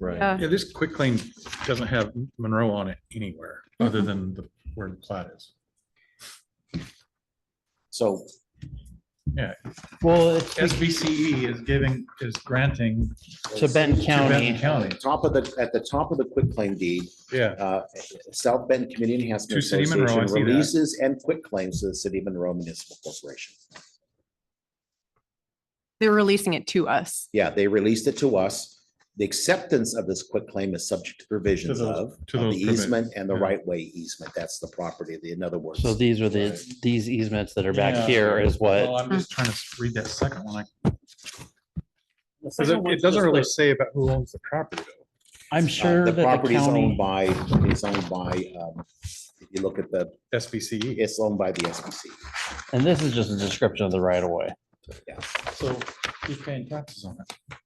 Right. Yeah. Yeah, this quick claim doesn't have Monroe on it anywhere, other Mm-hmm. than the, where the plat is. So Well, it's SBCE E is giving, is granting to Benton Benton County. County. top of the, at the top of the quick claim deed, Yeah, uh, South Bend Community Enhancement To City of Monroe, I Association see that. releases and quit claims to the City of Monroe Municipal Corporation. They're releasing it to us. Yeah, they released it to us. The acceptance of this quit claim is subject to provisions To those- of to of those the easement provisions, and the yeah. right way easement. That's the property, the, in other words. uh, So these are the, these easements that are back here is Well, what, I'm just trying to read that second one. I- Because it- It doesn't really say about who owns the property though. I'm Uh, sure The that the property is owned county, by, it's owned by, um, if you look at the, SBCE. it's owned by the SBC. and this is just a description of the right of way. So he's paying taxes on it.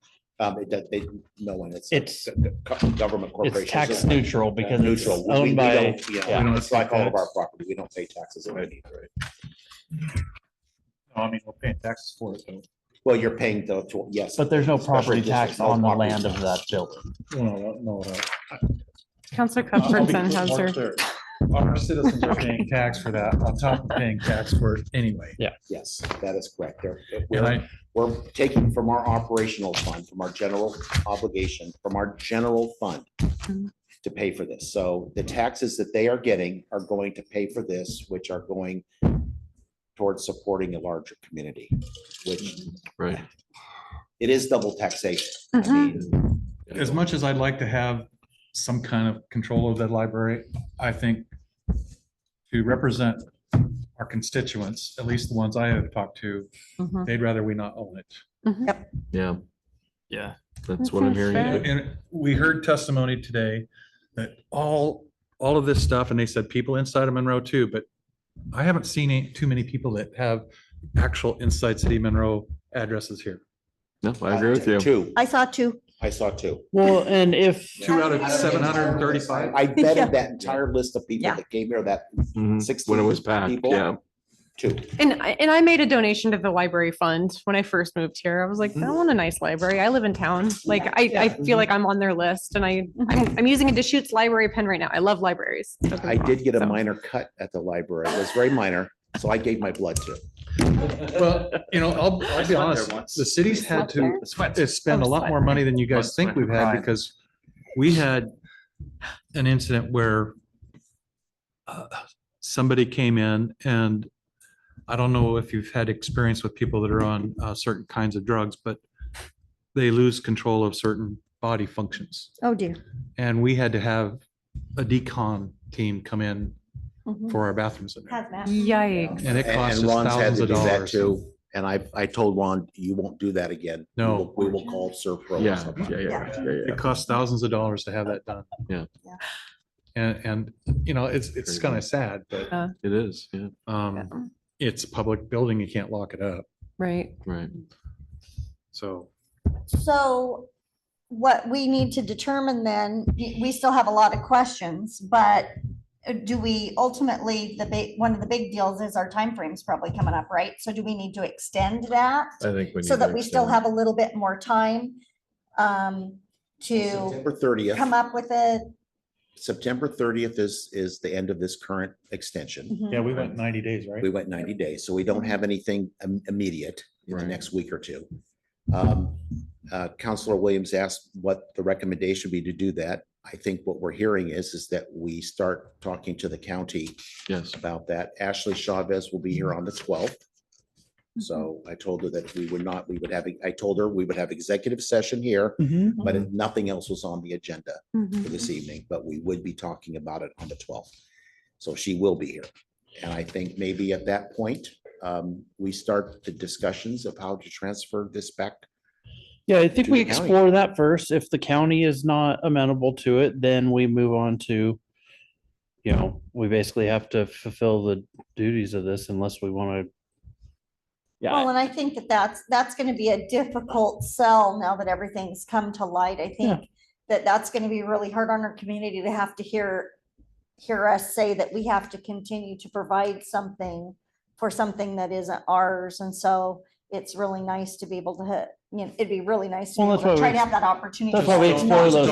Um, it, does- they, no one, it's. a It's- go- go- Government corporation. It's tax neutral because it's Neutral. We- we owned by, don't- yeah, yeah. we don't- It's like all of tax. our property. We don't pay taxes on it either. No, I mean, we're paying taxes for it though. Well, you're paying the, tw- yes. but there's no Special property districts, tax no on the property land of tax. that building. No, no, no. Counselor I'll be Cuthbertson has more her. clear. Our citizens are paying tax for that on top of paying tax for it anyway. Yes, that is correct. They're- And We're, I, we're taking from our operational fund, from our general obligation, from our general fund Mhm. to pay for this. So the taxes that they are getting are going to pay for this, which are going towards supporting a larger community, which Right. it is double taxation. I Uh-huh. mean, as much as I'd like to have some kind of control of that library, I think to represent our constituents, at least the ones I have talked to, Mhm. they'd rather we not own it. Yeah. Yeah, that's That what I'm sounds hearing. fair. too. And we heard testimony today that all, all of this stuff, and they said people inside of Monroe too, but I haven't seen any- too many people that have actual inside city Monroe addresses here. No, I agree with you. Two, I saw two. I saw two. Well, and if, Two out of seven hundred and thirty-five. I vetted that entire list of people Yeah. that came here, that Mhm. When it was packed, people. yeah. two. And, I- and I made a donation to the library fund when I first moved here. I was like, I want a nice library. I live in town. Like, I, I feel like I'm on their list and I, I'm, I'm using a Deschutes library pen right now. I love libraries. Don't get me I did wrong, get a so. minor cut at the library. It was very minor, so I gave my blood to. it. Well, you know, I'll, I'll be honest, the city's had to uh, spend a lot more money than you guys think we've had because we had an incident where uh, somebody came in and I don't know if you've had experience with people that are on uh, certain kinds of drugs, but they lose control of certain body functions. Oh, dear. And we had to have a decon team come in Mhm. for our bathrooms. in there. Yikes. And it And- cost and us Ron's had thousands to of do that dollars. too. And I, I told Ron, you won't do that again. We No. will- We will call Serpro. or Yeah, yeah, somebody." yeah, yeah, yeah. It costs thousands of dollars to have that done. Yeah. Yeah. And, and, you know, it's, it's kind of sad, but, It is, yeah, um, it's a public building. You can't lock it up. Right. right. So So what we need to determine then, y- we still have a lot of questions, but uh, do we ultimately, the big, one of the big deals is our timeframe's probably coming up, right? So do we need to extend that I think. so that we still have a little bit more time um, to September thirtieth, come up with it? September thirtieth is, is the end of this current extension. Mhm. we went ninety days, right? We went ninety days, so we don't have anything im- immediate in the Right. next week or two. Um, uh, Counselor Williams asked what the recommendation would be to do that. I think what we're hearing is, is that we start talking to the county Yes, about that. Ashley Chavez will be here on the twelfth. So I told her that we would not, we would have, I told her we would have executive session here, Mm-hmm. but if nothing else was on the agenda Mhm. for this evening, but we would be talking about it on the twelfth. So she will be here. And I think maybe at that point, um, we start the discussions of how to transfer this back. yeah, I think To we the county. explore that first. If the county is not amenable to it, then we move on to, you know, we basically have to fulfill the duties of this unless we want to. Yeah, I- Well, and I think that that's, that's gonna be a difficult sell now that everything's come to light. I Yeah. think that that's gonna be really hard on our community to have to hear, hear us say that we have to continue to provide something for something that isn't ours. And so it's really nice to be able to, hit- you know, it'd be really nice to be Well, able that's to why try we- to have that opportunity. that's why we to explore not those